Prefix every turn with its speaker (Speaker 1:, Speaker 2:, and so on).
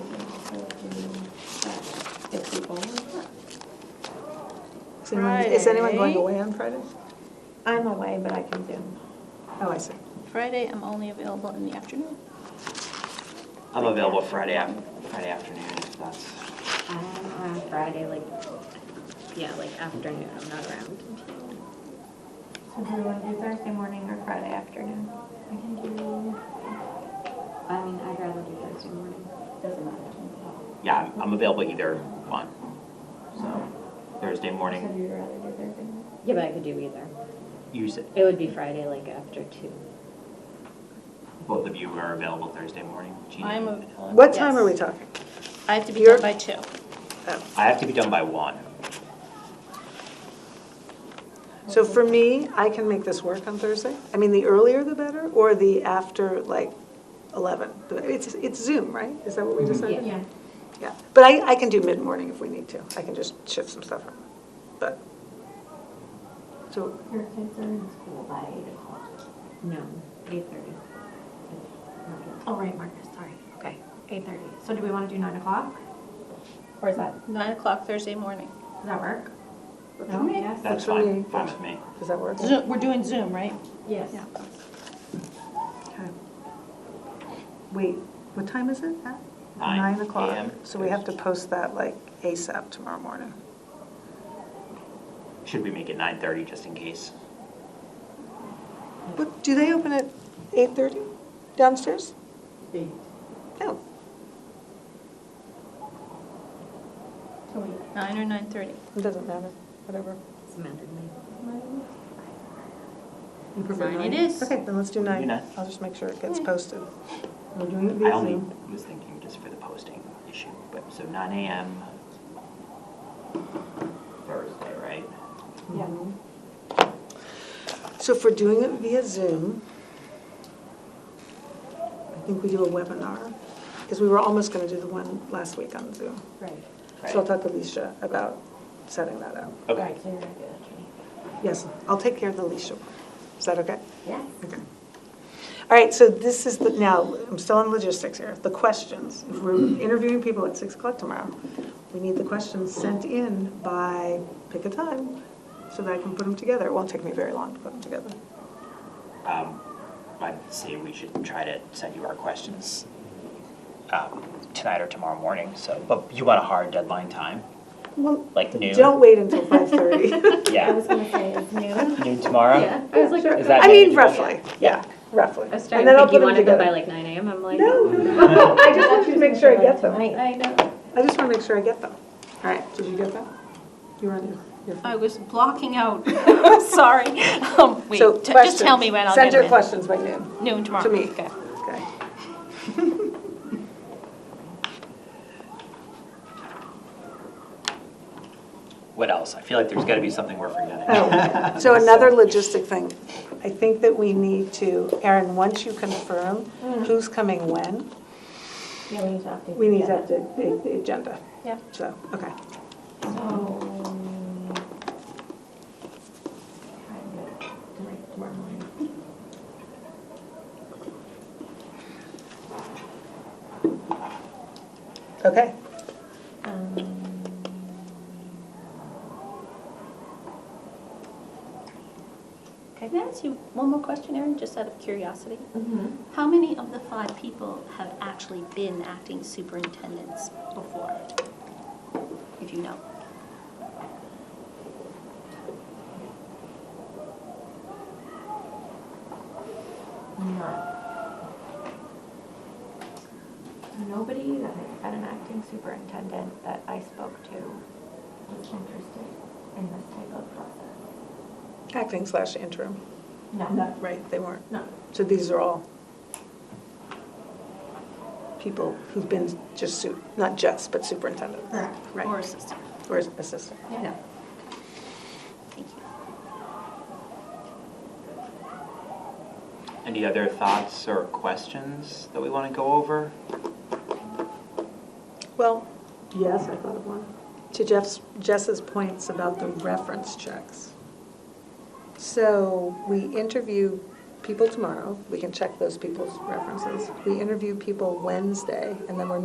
Speaker 1: Is anyone- Is anyone going
Speaker 2: Friday.
Speaker 1: away on Friday?
Speaker 3: I'm away, but I can Zoom.
Speaker 1: Oh, I see.
Speaker 4: Friday, I'm only available in the afternoon.
Speaker 5: I'm available Friday, af- Friday afternoon if that's,
Speaker 6: I'm Um, on Friday, like, yeah, like afternoon, I'm not around.
Speaker 3: So do you want to do Thursday morning or Friday afternoon?
Speaker 6: I can do, I mean, I'd rather do Thursday morning. Doesn't matter.
Speaker 5: yeah, I'm- I'm available either one. So Thursday
Speaker 3: So do
Speaker 5: morning,
Speaker 3: you rather do Thursday morning?
Speaker 6: Yeah, but I could do either.
Speaker 5: use it.
Speaker 6: It would be Friday, like after two.
Speaker 5: Both of you are available Thursday morning. Jeannie
Speaker 4: I'm
Speaker 5: and
Speaker 4: av-
Speaker 5: Helen.
Speaker 1: What time are we
Speaker 4: Yes.
Speaker 1: talking?
Speaker 4: I have to be
Speaker 1: You're-
Speaker 4: done by two.
Speaker 1: Oh.
Speaker 5: I have to be done by one.
Speaker 1: So for me, I can make this work on Thursday. I mean, the earlier the better, or the after, like, 11. It's, it's Zoom, right? Is that what we decided?
Speaker 6: Yeah.
Speaker 1: Yeah, but I, I can do mid-morning if we need to. I can just shift some stuff around, but, so,
Speaker 6: Your kids are in school by eight o'clock? No, eight thirty.
Speaker 3: Oh, right, Marcus, sorry. Okay, 8:30. So do we want to do 9 o'clock? Or is that,
Speaker 4: Nine o'clock Thursday morning.
Speaker 3: does that work?
Speaker 6: No, yes.
Speaker 1: Works
Speaker 5: That's
Speaker 1: for
Speaker 5: fine,
Speaker 1: me.
Speaker 5: fine with me.
Speaker 1: does that work?
Speaker 4: Zoom, we're doing Zoom, right?
Speaker 6: Yes.
Speaker 4: Yeah.
Speaker 1: Okay. Wait, what time is it? At
Speaker 5: Nine
Speaker 1: o'clock.
Speaker 5: AM.
Speaker 1: So we have to post that like ASAP tomorrow morning.
Speaker 5: Should we make it 9:30 just in case?
Speaker 1: What, do they open at 8:30 downstairs?
Speaker 2: Eight.
Speaker 1: No,
Speaker 4: Nine or nine thirty.
Speaker 1: it doesn't matter, whatever.
Speaker 6: Samantha, me.
Speaker 1: You prefer
Speaker 4: Nine it is.
Speaker 1: Okay, then let's do
Speaker 5: We'll
Speaker 1: nine.
Speaker 5: do nine.
Speaker 1: I'll just make sure it gets posted. We're doing it
Speaker 5: I only was thinking just for the posting issue, but, so 9 AM Thursday, right?
Speaker 6: Yeah.
Speaker 1: So if we're doing it via Zoom, I think we do a webinar, because we were almost going to do the one last week on Zoom.
Speaker 6: Right.
Speaker 1: So I'll
Speaker 5: Right.
Speaker 1: talk to Alicia about setting that up.
Speaker 5: Okay,
Speaker 6: So you're gonna do that, Jenny?
Speaker 1: Yes, I'll take care of the Alicia. one. Is that okay?
Speaker 6: Yes.
Speaker 1: Okay. All right, so this is the, now, I'm still on logistics here, the questions. If we're interviewing people at 6 o'clock tomorrow, we need the questions sent in by, pick a time, so that I can put them together. It won't take me very long to put them together.
Speaker 5: um, I'd say we should try to send you our questions um, tonight or tomorrow morning, so, but you want a hard deadline time?
Speaker 1: Well,
Speaker 5: Like noon?
Speaker 1: Don't wait until 5:30.
Speaker 6: I
Speaker 5: Yeah,
Speaker 6: was gonna say it's noon.
Speaker 5: noon tomorrow?
Speaker 6: Yeah, I was like.
Speaker 1: Sure.
Speaker 5: Is that
Speaker 1: I mean,
Speaker 5: manageable?
Speaker 1: roughly, yeah, roughly.
Speaker 6: I was
Speaker 1: And
Speaker 6: trying
Speaker 1: then
Speaker 6: to
Speaker 1: I'll
Speaker 6: think you
Speaker 1: put
Speaker 6: wanted them
Speaker 1: together.
Speaker 6: by like nine AM, I'm like.
Speaker 1: No, no, no, no, I just wanted to make sure I get them.
Speaker 6: I know.
Speaker 1: I just want to make sure I get them. All right, did you get that? You were on your- your phone.
Speaker 4: I was blocking out, sorry. Um, Wait,
Speaker 1: So,
Speaker 4: t- just tell
Speaker 1: questions.
Speaker 4: me when I'll
Speaker 1: Send
Speaker 4: get
Speaker 1: your
Speaker 4: them
Speaker 1: questions by noon,
Speaker 4: in. Noon tomorrow.
Speaker 1: to me.
Speaker 4: Okay.
Speaker 1: Okay.
Speaker 5: What else? I feel like there's gotta be something we're forgetting.
Speaker 1: Oh, So another logistic thing. I think that we need to, Erin, once you confirm
Speaker 4: Mm-hmm.
Speaker 1: who's coming when,
Speaker 6: Yeah, we need to update.
Speaker 1: we need to update the- the agenda.
Speaker 4: Yeah.
Speaker 1: So, okay.
Speaker 6: So. try and do it tonight, tomorrow morning.
Speaker 1: Okay.
Speaker 6: Um,
Speaker 4: Can I ask you one more question, Erin, just out of curiosity?
Speaker 6: mhm.
Speaker 4: How many of the five people have actually been acting superintendents before? If you know.
Speaker 6: No. Nobody that has been an acting superintendent that I spoke to was interested in this type of process.
Speaker 1: Acting slash interim.
Speaker 6: No.
Speaker 1: Right, they weren't.
Speaker 6: No.
Speaker 1: So these are all people who've been just, su- not just, but superintendent.
Speaker 6: Correct.
Speaker 1: Right.
Speaker 4: Or assistant.
Speaker 1: Or assistant.
Speaker 6: Yeah.
Speaker 4: Thank you.
Speaker 5: Any other thoughts or questions that we wanna go over?
Speaker 1: Well, yes, I thought of one. To Jeff's, Jess's points about the reference checks. So we interview people tomorrow, we can check those people's references. We interview people Wednesday, and then we're